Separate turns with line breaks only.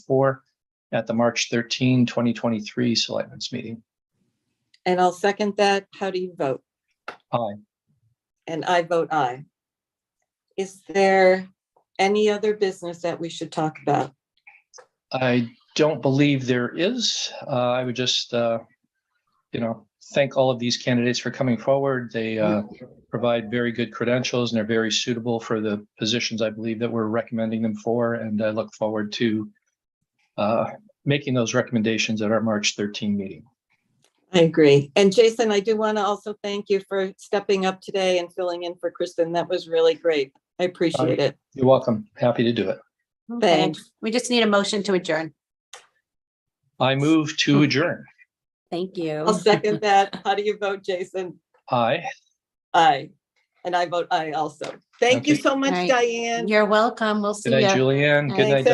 four at the March 13, 2023 Selectments Meeting.
And I'll second that. How do you vote?
Aye.
And I vote aye. Is there any other business that we should talk about?
I don't believe there is. Uh, I would just, uh, you know, thank all of these candidates for coming forward. They uh, provide very good credentials and are very suitable for the positions I believe that we're recommending them for, and I look forward to uh, making those recommendations at our March 13 meeting.
I agree. And Jason, I do want to also thank you for stepping up today and filling in for Kristen. That was really great. I appreciate it.
You're welcome. Happy to do it.
Okay.
Thanks.
We just need a motion to adjourn.
I move to adjourn.
Thank you.
I'll second that. How do you vote, Jason?
Aye.
Aye. And I vote aye also. Thank you
Okay.
so much,
Right.
Diane.
You're welcome. We'll see
Good
you.
night, Julianne. Good
Thanks,
night,